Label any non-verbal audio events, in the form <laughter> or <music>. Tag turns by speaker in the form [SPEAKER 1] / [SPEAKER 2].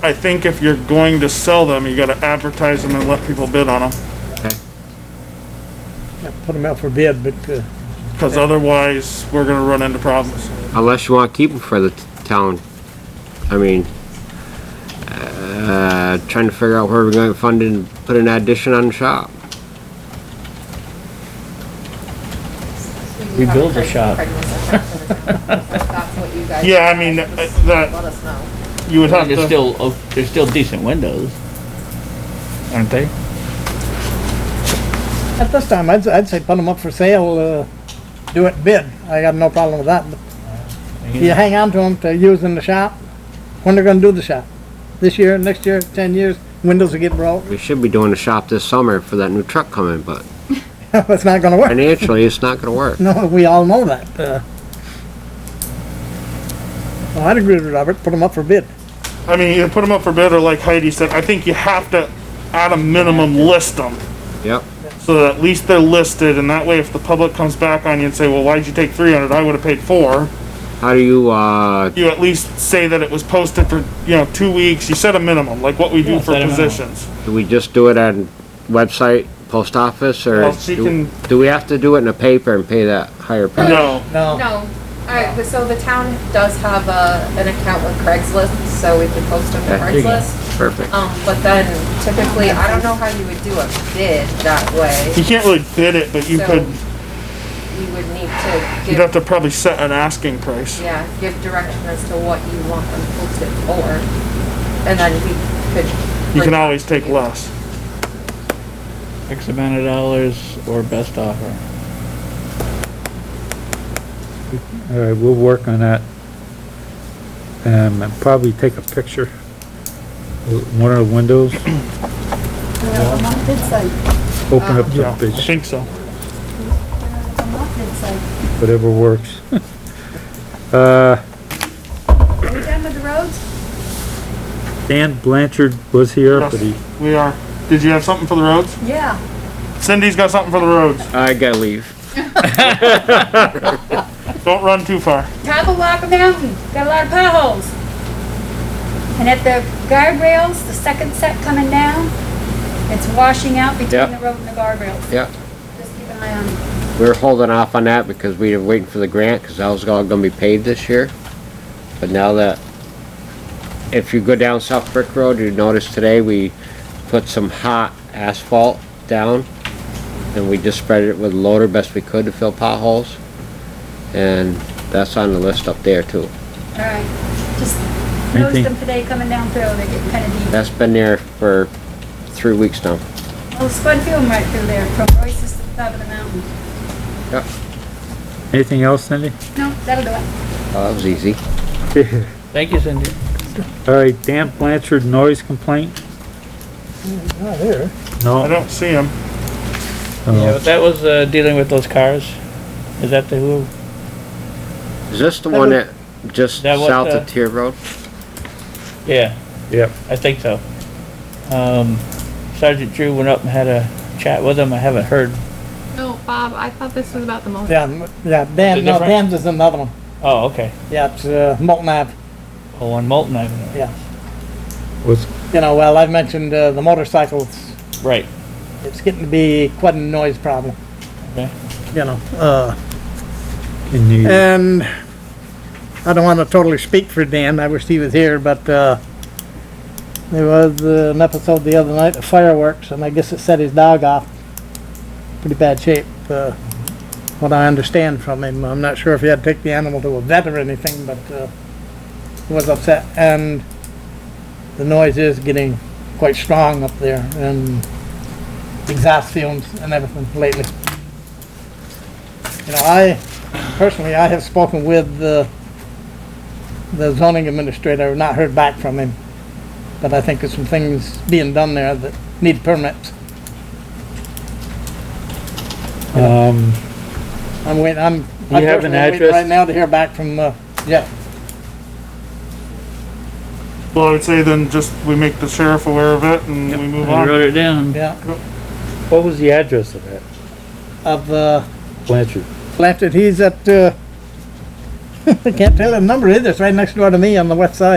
[SPEAKER 1] I think if you're going to sell them, you gotta advertise them and let people bid on them,
[SPEAKER 2] okay?
[SPEAKER 3] Yeah, Put them out for bid, but, uh,
[SPEAKER 1] because otherwise, we're gonna run into problems.
[SPEAKER 2] Unless you want to keep them for the t- town. I mean, uh, trying to figure out where we're going to fund it and put an addition on the shop.
[SPEAKER 4] We
[SPEAKER 5] Rebuild
[SPEAKER 4] build
[SPEAKER 5] the
[SPEAKER 4] the shop.
[SPEAKER 5] shop.
[SPEAKER 1] <laughs> Yeah, I mean, uh, that-
[SPEAKER 5] Let us know.
[SPEAKER 1] You would have
[SPEAKER 4] There's
[SPEAKER 1] to,
[SPEAKER 4] still, oh, there's still decent windows, aren't they?
[SPEAKER 3] at this time, I'd, I'd say put them up for sale, uh, do it bid. I got no problem with that, but if you hang on to them to use in the shop, when they're gonna do the shop? This year, next year, ten years, windows will get broke, <laughs>
[SPEAKER 2] We should be doing a shop this summer for that new truck coming, but
[SPEAKER 3] it's not gonna work.
[SPEAKER 2] financially, it's not going to work.
[SPEAKER 3] No, we all know that, uh. Well, I'd agree with Robert, put them up for bid.
[SPEAKER 1] I mean, either put them up for bid, or like Heidi said, I think you have to, at a minimum, list them.
[SPEAKER 2] Yep.
[SPEAKER 1] so that at least they're listed, and that way if the public comes back on you and say, well, why'd you take three hundred, I would've paid four,
[SPEAKER 2] How do you, uh,
[SPEAKER 1] you at least say that it was posted for, you know, two weeks, you set a minimum, like what we do
[SPEAKER 4] Yeah,
[SPEAKER 1] for
[SPEAKER 4] set a minimum.
[SPEAKER 1] positions.
[SPEAKER 2] do we just do it on website, post office, or
[SPEAKER 1] Well, she
[SPEAKER 2] do
[SPEAKER 1] can-
[SPEAKER 2] do we have to do it in a paper and pay that higher price?
[SPEAKER 1] No,
[SPEAKER 3] No,
[SPEAKER 5] No, alright, so the town does have a, an account with Craigslist, so we could post on
[SPEAKER 2] Yeah, there you go.
[SPEAKER 5] Craigslist.
[SPEAKER 2] Perfect.
[SPEAKER 5] Um, but then typically, I don't know how you would do a bid that way.
[SPEAKER 1] you can't really bid it, but you
[SPEAKER 5] So
[SPEAKER 1] could,
[SPEAKER 5] You would need to
[SPEAKER 1] you'd have
[SPEAKER 5] give,
[SPEAKER 1] to probably set an asking price.
[SPEAKER 5] yeah, give direction as to what you want them posted for. And then we could.
[SPEAKER 1] You
[SPEAKER 5] bring
[SPEAKER 1] can
[SPEAKER 5] that
[SPEAKER 1] always
[SPEAKER 5] to
[SPEAKER 1] take less.
[SPEAKER 4] X amount of dollars or best offer.
[SPEAKER 6] All right, we'll work on that. Um, and probably take a picture. of One of the windows,
[SPEAKER 7] Well, on my bid site,
[SPEAKER 6] open up
[SPEAKER 1] Yeah,
[SPEAKER 6] the
[SPEAKER 1] I
[SPEAKER 6] page,
[SPEAKER 1] think so.
[SPEAKER 7] on my bid site,
[SPEAKER 6] whatever works. <laughs> Uh,
[SPEAKER 7] are we done with the roads?
[SPEAKER 6] Dan Blanchard was here, but he,
[SPEAKER 1] We are. Did you have something for the roads?
[SPEAKER 7] Yeah.
[SPEAKER 1] Cindy's got something for the roads.
[SPEAKER 2] I gotta leave.
[SPEAKER 1] Don't run too far.
[SPEAKER 7] Tabawaka Mountain, got a lot of potholes. And at the guardrails, the second set coming down, it's washing out
[SPEAKER 2] Yeah.
[SPEAKER 7] between the road and the guardrails.
[SPEAKER 2] Yeah.
[SPEAKER 7] Just keep an eye on it.
[SPEAKER 2] We were holding off on that because we were waiting for the grant, because that was all gonna be paid this year. But now that, if you go down South Brick Road, you notice today we put some hot asphalt down. And we just spread it with loader best we could to fill potholes. And that's on the list up there too.
[SPEAKER 7] All right, just
[SPEAKER 6] Anything-
[SPEAKER 7] noticed them today coming down through, they get kind of deep.
[SPEAKER 2] That's been there for three weeks now.
[SPEAKER 7] Well, Spud Field right through there, from Royce's to the top of the mountain.
[SPEAKER 2] Yep,
[SPEAKER 6] anything else, Cindy?
[SPEAKER 7] No, that'll do it.
[SPEAKER 2] well, that was easy.
[SPEAKER 4] Thank you, Cindy.
[SPEAKER 6] All right, Dan Blanchard noise complaint?
[SPEAKER 3] not here.
[SPEAKER 1] I
[SPEAKER 6] No.
[SPEAKER 1] don't see him.
[SPEAKER 4] Yeah,
[SPEAKER 6] no.
[SPEAKER 4] but that was, uh, dealing with those cars. Is that the who?
[SPEAKER 2] Is this the one that just
[SPEAKER 4] That what,
[SPEAKER 2] south
[SPEAKER 4] uh,
[SPEAKER 2] of Tier Road?
[SPEAKER 4] Yeah,
[SPEAKER 6] Yep.
[SPEAKER 4] I think so. Um, Sergeant Drew went up and had a chat with him. I haven't heard.
[SPEAKER 5] No, Bob, I thought this was about the motor.
[SPEAKER 3] Yeah, m- yeah, Dan, no,
[SPEAKER 4] difference?
[SPEAKER 3] Dan's is another one.
[SPEAKER 4] Oh, okay.
[SPEAKER 3] Yeah, it's, uh, Molten Ave.
[SPEAKER 4] Oh, on Molten Avenue.
[SPEAKER 3] Yeah,
[SPEAKER 6] Was,
[SPEAKER 3] you know, well, I've mentioned, uh, the motorcycles,
[SPEAKER 4] Right.
[SPEAKER 3] it's getting to be quite a noise problem.
[SPEAKER 4] Okay.
[SPEAKER 3] You know, uh,
[SPEAKER 6] in the,
[SPEAKER 3] and I don't wanna totally speak for Dan, I wish he was here, but, uh, there was uh, an episode the other night of fireworks, and I guess it set his dog off. Pretty bad shape, uh, what I understand from him. I'm not sure if he had to take the animal to a vet or anything, but, uh, he was upset, and the noise is getting quite strong up there, and exhaust fumes and everything lately. You know, I, personally, I have spoken with the, the zoning administrator, not heard back from him. But I think there's some things being done there that need permits.
[SPEAKER 6] um,
[SPEAKER 3] I'm waiting, I'm.
[SPEAKER 6] Do you have
[SPEAKER 3] I'm personally waiting
[SPEAKER 6] an address?
[SPEAKER 3] Right now to hear back from, uh, Jeff.
[SPEAKER 1] Well, I would say then just we make the sheriff aware of it and we move
[SPEAKER 4] I
[SPEAKER 1] on.
[SPEAKER 4] wrote it down.
[SPEAKER 3] yeah,
[SPEAKER 6] what was the address of that,
[SPEAKER 3] of, uh,
[SPEAKER 6] Blanchard?
[SPEAKER 3] <laughs> Blanford, he's at, uh, I can't tell the number either, it's right next door to me on the west side.